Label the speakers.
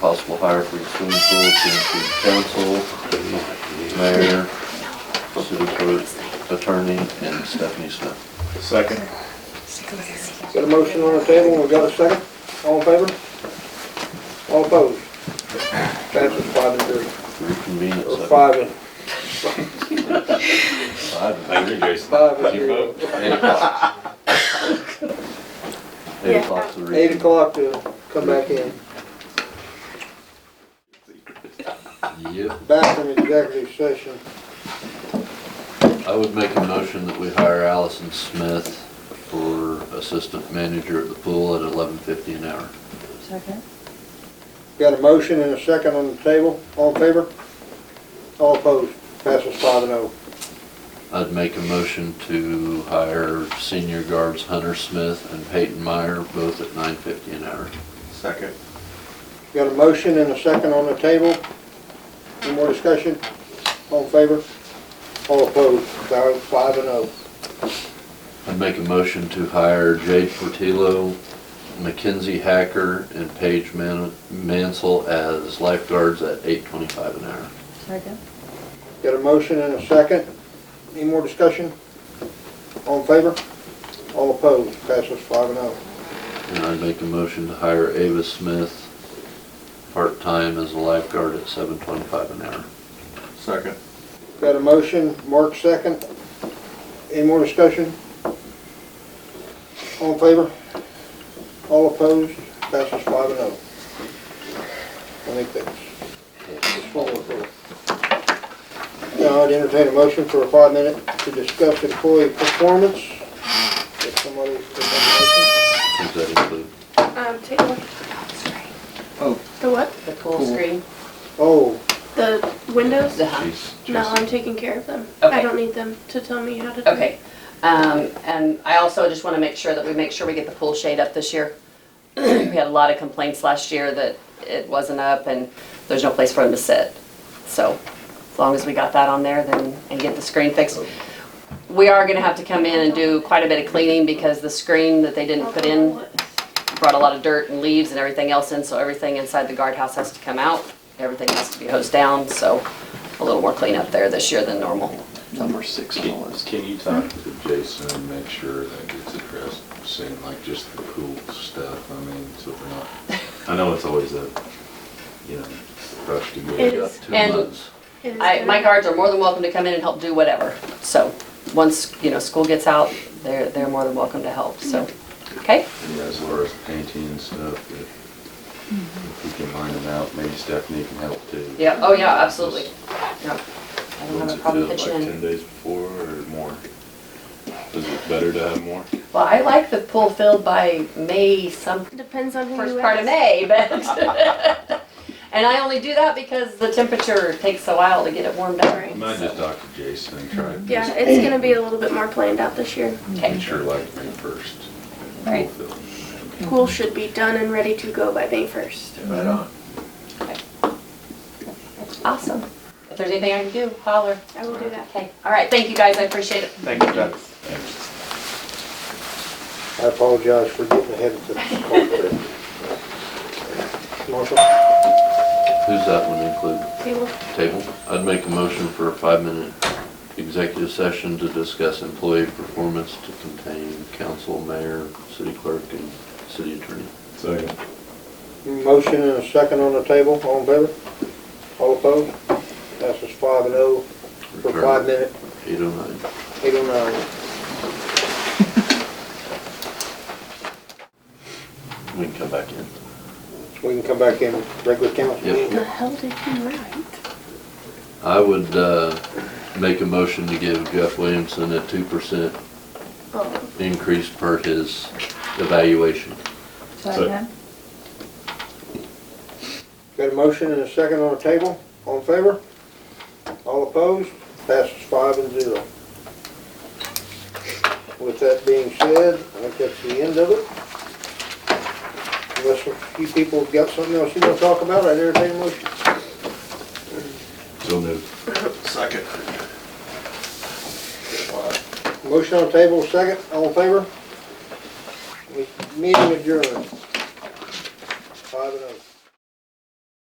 Speaker 1: possible hire for the swimming pool, to include council, mayor, city clerk, attorney, and Stephanie Smith.
Speaker 2: Second.
Speaker 3: Got a motion on the table, we got a second? All in favor? All opposed? Passes five and three,
Speaker 1: Reconvene at
Speaker 3: or
Speaker 1: seven.
Speaker 3: five and,
Speaker 1: Five and
Speaker 4: Thank you, Jason.
Speaker 3: five and
Speaker 4: You
Speaker 3: three.
Speaker 4: vote?
Speaker 1: Eight o'clock. Eight o'clock to reconvene.
Speaker 3: Eight o'clock to come back in,
Speaker 1: Yep.
Speaker 3: back from executive session.
Speaker 1: I would make a motion that we hire Allison Smith for assistant manager at the pool at eleven fifty an hour.
Speaker 5: Second?
Speaker 3: Got a motion and a second on the table, all in favor? All opposed? Passes five and oh.
Speaker 1: I'd make a motion to hire senior guards Hunter Smith and Peyton Meyer, both at nine fifty an hour.
Speaker 2: Second.
Speaker 3: Got a motion and a second on the table. Any more discussion? All in favor? All opposed? Five five and oh.
Speaker 1: I'd make a motion to hire Jade Portillo, Mackenzie Hacker, and Paige Man- Mansell as lifeguards at eight twenty-five an hour.
Speaker 5: Second?
Speaker 3: Got a motion and a second. Any more discussion? All in favor? All opposed? Passes five and oh.
Speaker 1: And I'd make a motion to hire Ava Smith, part-time as a lifeguard at seven twenty-five an hour.
Speaker 2: Second.
Speaker 3: Got a motion, Mark second. Any more discussion? All in favor? All opposed? Passes five and oh. I think that's, that's all of it. Now I'd entertain a motion for a five minute to discuss employee performance. If somebody, if somebody-
Speaker 1: Does that include?
Speaker 6: Um, take a look at the pool screen.
Speaker 2: Oh.
Speaker 6: The what?
Speaker 5: The pool screen?
Speaker 3: oh,
Speaker 6: The windows?
Speaker 5: Uh-huh.
Speaker 1: She's-
Speaker 6: No,
Speaker 1: she's-
Speaker 6: I'm taking care of them.
Speaker 5: Okay.
Speaker 6: I don't need them to tell me how to do it.
Speaker 5: Okay. Um, and I also just want to make sure that we make sure we get the pool shade up this year. We had a lot of complaints last year that it wasn't up and there's no place for them to sit. So as long as we got that on there, then, and get the screen fixed. We are gonna have to come in and do quite a bit of cleaning because the screen that they didn't put in brought a lot of dirt and leaves and everything else in, so everything inside the guardhouse has to come out. Everything has to be hosed down, so a little more cleanup there this year than normal.
Speaker 7: Number six on the list.
Speaker 4: Can you talk to Jason and make sure that gets addressed soon, like just the pool stuff, I mean, so we're not, I know it's always a, you know, rush to get
Speaker 6: It
Speaker 4: it up.
Speaker 6: is.
Speaker 1: Two
Speaker 5: And-
Speaker 1: months.
Speaker 6: It is
Speaker 5: I,
Speaker 6: good.
Speaker 5: my guards are more than welcome to come in and help do whatever. So, once, you know, school gets out, they're, they're more than welcome to help, so, okay?
Speaker 4: And as far as painting and stuff, if if we can line them out, maybe Stephanie can help too.
Speaker 5: Yeah, oh yeah, absolutely. Yeah. I
Speaker 4: What's
Speaker 5: don't have a
Speaker 4: it
Speaker 5: problem
Speaker 4: feel
Speaker 5: pitching
Speaker 4: like, ten
Speaker 5: in.
Speaker 4: days before or more? Is it better to have more?
Speaker 5: Well, I like the pool filled by May some,
Speaker 6: Depends on who you ask.
Speaker 5: first part of May, but. And I only do that because the temperature takes a while to get it warmed up.
Speaker 4: I
Speaker 6: Right.
Speaker 4: might just talk to Jason and try. to
Speaker 6: Yeah, it's gonna be a little bit more planned out this year.
Speaker 4: Make sure like May first.
Speaker 5: Right.
Speaker 6: Pool should be done and ready to go by May first.
Speaker 2: Right on.
Speaker 5: Awesome. If there's anything I can do, holler.
Speaker 6: I will do that.
Speaker 5: Okay, all right, thank you guys, I appreciate it.
Speaker 2: Thank you, Doug.
Speaker 3: I apologize for getting ahead of the. Marshall?
Speaker 1: Who's that one include?
Speaker 6: Table.
Speaker 1: Table. I'd make a motion for a five-minute executive session to discuss employee performance to contain council, mayor, city clerk, and city attorney.
Speaker 4: Second.
Speaker 3: Motion and a second on the table, all in favor? All opposed? Passes five and oh for five minute,
Speaker 1: Eight oh nine.
Speaker 3: eight oh nine.
Speaker 1: We can come back in.
Speaker 3: We can come back in regular council
Speaker 1: Yep.
Speaker 3: meeting.
Speaker 6: The hell did you write?
Speaker 1: I would, uh, make a motion to give Jeff Williamson a two percent
Speaker 6: Oh,
Speaker 1: increase per his evaluation.
Speaker 4: Second.
Speaker 3: Got a motion and a second on the table, all in favor? All opposed? Passes five and zero. With that being said, I think that's the end of it. Unless a few people have got something else you want to talk about, I entertain a motion.
Speaker 4: So moved.
Speaker 2: Second.
Speaker 3: Motion on the table, second, all in favor? We- Meeting adjourned. oh.